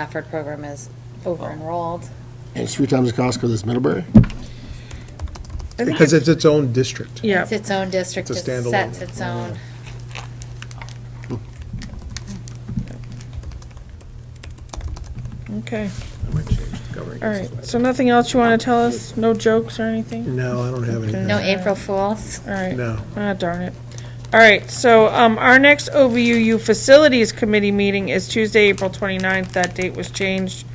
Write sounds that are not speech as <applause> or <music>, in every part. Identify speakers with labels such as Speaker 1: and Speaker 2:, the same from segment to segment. Speaker 1: Stafford program is over enrolled.
Speaker 2: And it's three times the cost because it's Middlebury?
Speaker 3: Because it's its own district.
Speaker 4: Yeah,
Speaker 1: It's its own district, it
Speaker 3: It's a standalone.
Speaker 1: sets its own.
Speaker 4: okay.
Speaker 3: governing
Speaker 4: All right, so nothing else you want to tell us? No jokes or anything?
Speaker 3: No, I don't have anything.
Speaker 1: No April Fools.
Speaker 4: All right.
Speaker 3: No.
Speaker 4: Ah, darn it. All right, so um, our next OVUU Facilities Committee meeting is Tuesday, April 29th. That date was changed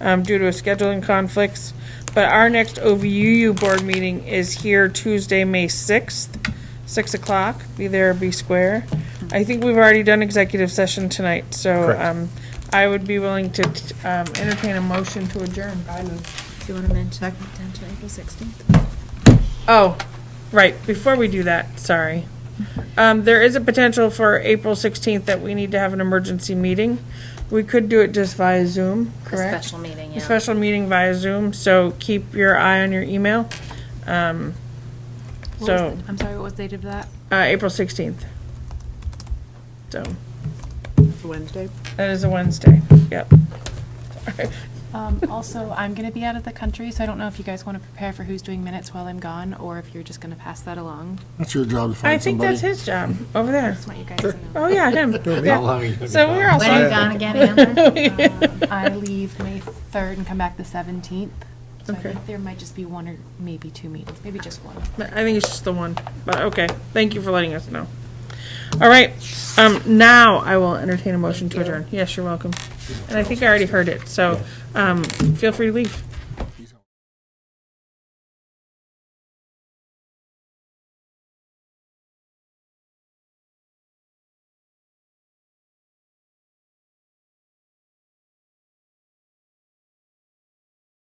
Speaker 4: um, due to scheduling conflicts. But our next OVUU Board meeting is here Tuesday, May 6th, 6 o'clock. Be there, be square. I think we've already done executive session tonight, so
Speaker 3: Correct.
Speaker 4: um, I would be willing to t- um, entertain a motion to adjourn.
Speaker 5: Do you want to mention potential April 16th?
Speaker 4: Oh, right, before we do that, sorry. Um, there is a potential for April sixteenth that we need to have an emergency meeting. We could do it just via Zoom,
Speaker 1: A
Speaker 4: correct?
Speaker 1: special meeting,
Speaker 4: A
Speaker 1: yeah.
Speaker 4: special meeting via Zoom, so keep your eye on your email. Um, so,
Speaker 5: I'm sorry, what was the date of that?
Speaker 4: uh, April sixteenth. So,
Speaker 6: Wednesday?
Speaker 4: that is a Wednesday, yep.
Speaker 7: Um, also, I'm going to be out of the country, so I don't know if you guys want to prepare for who's doing minutes while I'm gone, or if you're just going to pass that along.
Speaker 2: That's your job to
Speaker 4: I
Speaker 2: find
Speaker 4: think
Speaker 2: somebody.
Speaker 4: that's his job, over there.
Speaker 7: Just want you guys to know.
Speaker 4: Oh,
Speaker 2: <laughs>
Speaker 4: yeah, him, yeah. So we're all
Speaker 1: When are you gone
Speaker 3: <laughs>
Speaker 1: again, Amber?
Speaker 7: I leave May 3rd and come back the 17th. So I think there might just be one or maybe two meetings, maybe just one.
Speaker 4: I think it's just the one, but okay. Thank you for letting us know. All right, um, now I will entertain a motion to adjourn. Yes, you're welcome. And I think I already heard it, so, um, feel free to leave.